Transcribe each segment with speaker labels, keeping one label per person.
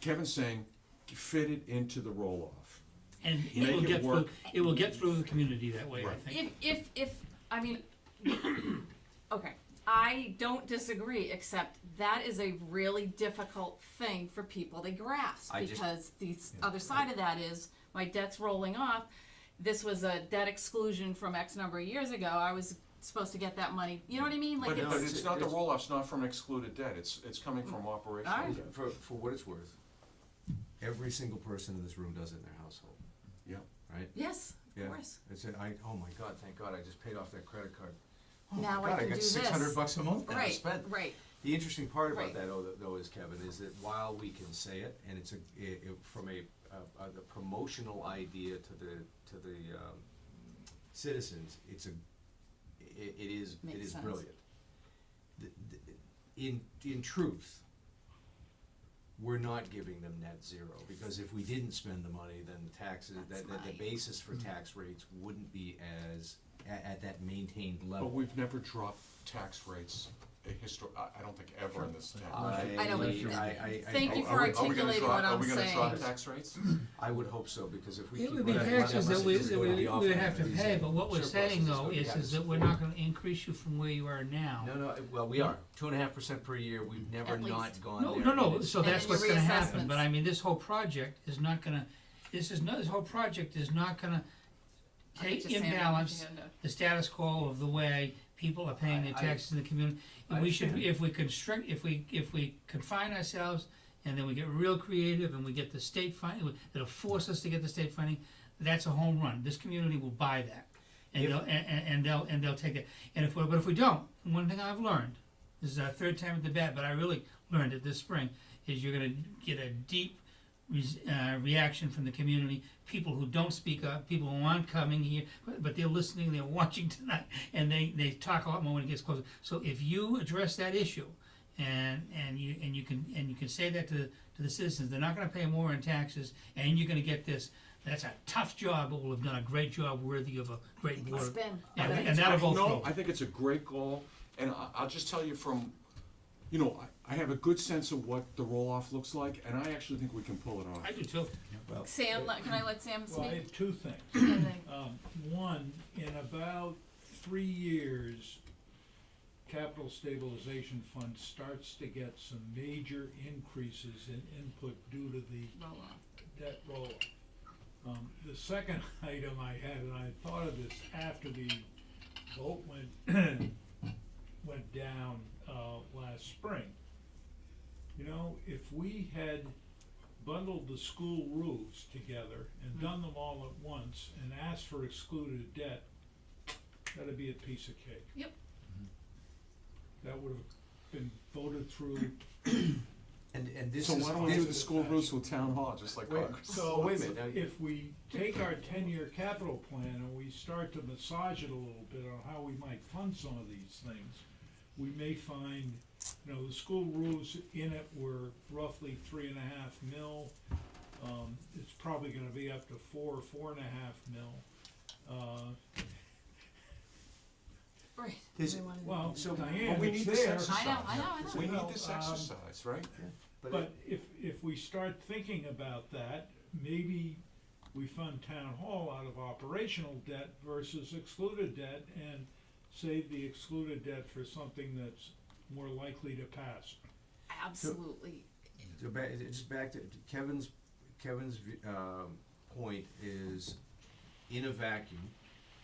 Speaker 1: Kevin's saying, fit it into the roll off.
Speaker 2: And
Speaker 1: Make
Speaker 2: it will
Speaker 1: it
Speaker 2: get through,
Speaker 1: work.
Speaker 2: it will get through the community that way, I
Speaker 1: Right.
Speaker 2: think.
Speaker 3: If, if, if, I mean, okay, I don't disagree, except that is a really difficult thing for people to grasp.
Speaker 4: I just-
Speaker 3: Because the s- other side of that is, my debt's rolling off, this was a debt exclusion from X number of years ago, I was supposed to get that money, you know what I mean? Like
Speaker 1: But, but
Speaker 3: it's, Mm.
Speaker 1: it's not the roll off's not from excluded debt, it's, it's coming from operational
Speaker 3: Alright.
Speaker 1: debt.
Speaker 4: For, for what it's worth, every single person in this room does it in their household,
Speaker 1: Yeah,
Speaker 4: right?
Speaker 3: yes,
Speaker 4: Yeah.
Speaker 3: of course,
Speaker 4: It's, a- I, oh my god, thank god, I just paid off that credit card. Oh my
Speaker 3: now I
Speaker 4: God,
Speaker 3: can do
Speaker 4: got
Speaker 3: this.
Speaker 4: six hundred bucks a month now to
Speaker 3: Right,
Speaker 4: spend.
Speaker 3: right,
Speaker 4: The interesting part about
Speaker 3: Right.
Speaker 4: that though, though is Kevin, is that while we can say it, and it's a, it, it- from a, a, a the promotional idea to the, to the, um, citizens, it's a, it, it is, it
Speaker 3: Makes
Speaker 4: is
Speaker 3: sense.
Speaker 4: brilliant. Th- th- In, in truth, we're not giving them net zero, because if we didn't spend the money, then the taxes,
Speaker 3: That's
Speaker 4: that, that the
Speaker 3: my-
Speaker 4: basis for tax rates wouldn't be as, at, at that maintained level.
Speaker 1: but we've never dropped tax rates, a histor, I, I don't think ever in this town.
Speaker 4: I,
Speaker 3: I know what you mean.
Speaker 4: I, I,
Speaker 3: Thank
Speaker 1: Are-
Speaker 3: you
Speaker 1: are we-
Speaker 3: for
Speaker 1: are we gonna
Speaker 3: articulating
Speaker 1: drop-
Speaker 3: what I'm
Speaker 1: Are we
Speaker 3: saying.
Speaker 1: gonna drop tax rates?
Speaker 4: I would hope so, because if we
Speaker 2: It
Speaker 4: keep.
Speaker 2: would be
Speaker 4: running-
Speaker 2: taxes that we,
Speaker 4: it's
Speaker 2: that
Speaker 4: gonna be
Speaker 2: we
Speaker 4: off
Speaker 2: would
Speaker 4: on
Speaker 2: have to
Speaker 4: these
Speaker 2: pay, but what we're
Speaker 4: surpluses,
Speaker 2: saying
Speaker 4: so
Speaker 2: though
Speaker 4: we
Speaker 2: is,
Speaker 4: have
Speaker 2: is
Speaker 4: to-
Speaker 2: that we're not gonna increase you from where you are now.
Speaker 4: No, no, well, we are, two and a half percent per year, we've never
Speaker 3: At least.
Speaker 4: not gone
Speaker 2: No,
Speaker 4: there.
Speaker 2: no,
Speaker 4: and
Speaker 2: no,
Speaker 4: it's-
Speaker 2: so
Speaker 3: And
Speaker 2: that's
Speaker 3: then
Speaker 2: what's
Speaker 3: your
Speaker 2: gonna happen, but
Speaker 3: reassessments.
Speaker 2: I mean, this whole project is not gonna, this is not, this whole project is not gonna
Speaker 3: I'm
Speaker 2: take
Speaker 3: just saying,
Speaker 2: imbalance
Speaker 3: yeah, no.
Speaker 2: the status quo of the way people are paying their
Speaker 4: I- I-
Speaker 2: taxes in the community.
Speaker 4: I
Speaker 2: We should,
Speaker 4: understand.
Speaker 2: if we constrict, if we, if we confine ourselves, and then we get real creative, and we get the state funding, it'll force us to get the state funding, that's a home run, this community will buy that. And
Speaker 4: If-
Speaker 2: they'll, and, and and they'll, and they'll take it, and if, we but if we don't, one thing I've learned, this is our third time at the bat, but I really learned it this spring, is you're gonna get a deep res- uh, reaction from the community, people who don't speak up, people who aren't coming here, but, but they're listening, they're watching tonight, and they, they talk a lot more when it gets closer. So if you address that issue, and and you and you can and you can say that to to the citizens, they're not going to pay more in taxes, and you're going to get this. That's a tough job, but we'll have done a great job, worthy of a great board.
Speaker 3: It's been-
Speaker 2: Yeah,
Speaker 3: but
Speaker 2: and
Speaker 3: it's-
Speaker 2: that'll go
Speaker 1: No,
Speaker 2: through.
Speaker 1: I think it's a great goal, and I, I'll just tell you from, you know, I, I have a good sense of what the roll off looks like, and I actually think we can pull it off.
Speaker 2: I do too.
Speaker 3: Sam, let- can I let Sam
Speaker 5: Well, I
Speaker 3: speak?
Speaker 5: have two things.
Speaker 3: And then-
Speaker 5: Um, one, in about three years, capital stabilization fund starts to get some major increases in input due to the
Speaker 3: roll on.
Speaker 5: debt roll. Um, the second item I had, and I thought of this after the vote went, went down, uh, last spring. You know, if we had bundled the school roofs together and done them all at once and asked for excluded debt, that'd be a piece of cake.
Speaker 3: Yep.
Speaker 5: That would have been voted through.
Speaker 4: And, and this
Speaker 1: So
Speaker 4: is.
Speaker 1: why don't we
Speaker 4: this-
Speaker 1: do the school roofs with town hall, just like
Speaker 4: Wait,
Speaker 1: Congress?
Speaker 4: so wait a minute, now,
Speaker 5: if we take our ten-year capital plan and we start to massage it a little bit on how we might fund some of these things, we may find, you know, the school rules in it were roughly three and a half mil. Um, it's probably gonna be up to four, four and a half mil. Uh,
Speaker 3: Right.
Speaker 4: This-
Speaker 3: We wanted-
Speaker 5: well,
Speaker 4: So-
Speaker 5: Diane,
Speaker 1: But we
Speaker 5: it's
Speaker 1: need this
Speaker 5: there.
Speaker 1: exercise. Uh,
Speaker 3: I know, I know, I know.
Speaker 1: We
Speaker 5: you
Speaker 1: need
Speaker 5: know,
Speaker 1: this
Speaker 5: um,
Speaker 1: exercise, right?
Speaker 4: but,
Speaker 5: But if, if we start thinking about that, maybe we fund town hall out of operational debt versus excluded debt and save the excluded debt for something that's more likely to pass.
Speaker 3: Absolutely.
Speaker 4: so ba- it- just back to Kevin's, Kevin's, um, point is, in a vacuum,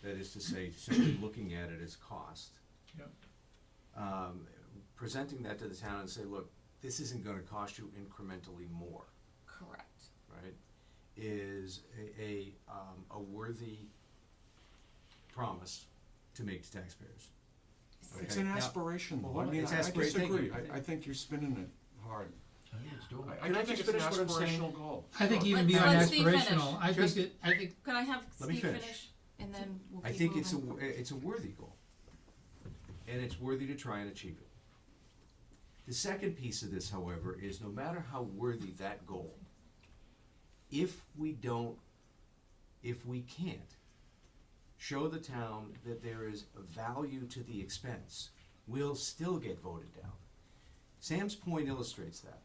Speaker 4: that is to say, simply looking at it as cost.
Speaker 5: Yep.
Speaker 4: Um, presenting that to the town and say, look, this isn't gonna cost you incrementally more.
Speaker 3: Correct.
Speaker 4: right, is a, a, um, a worthy promise to make to taxpayers.
Speaker 1: It's
Speaker 4: Okay.
Speaker 1: an
Speaker 4: Now-
Speaker 1: aspiration, though. I
Speaker 4: Well,
Speaker 1: mean,
Speaker 4: it's
Speaker 1: I I
Speaker 4: aspira- thank
Speaker 1: disagree.
Speaker 4: you.
Speaker 1: I, I think you're spinning it hard. I, I
Speaker 4: Can I
Speaker 1: do think
Speaker 4: just
Speaker 1: it's an
Speaker 4: finish what I'm saying?
Speaker 1: aspirational goal.
Speaker 2: I think even
Speaker 3: Let's-
Speaker 2: beyond
Speaker 3: let's Steve finish.
Speaker 2: aspirational, I think
Speaker 4: Just-
Speaker 2: that I think
Speaker 3: Could I have
Speaker 4: Let me
Speaker 3: Steve
Speaker 4: finish.
Speaker 3: finish? And then we'll
Speaker 4: I
Speaker 3: keep
Speaker 4: think it's a,
Speaker 3: moving.
Speaker 4: wo- it's a worthy goal, and it's worthy to try and achieve it. The second piece of this, however, is no matter how worthy that goal, if we don't, if we can't show the town that there is a value to the expense, we'll still get voted down. Sam's point illustrates that.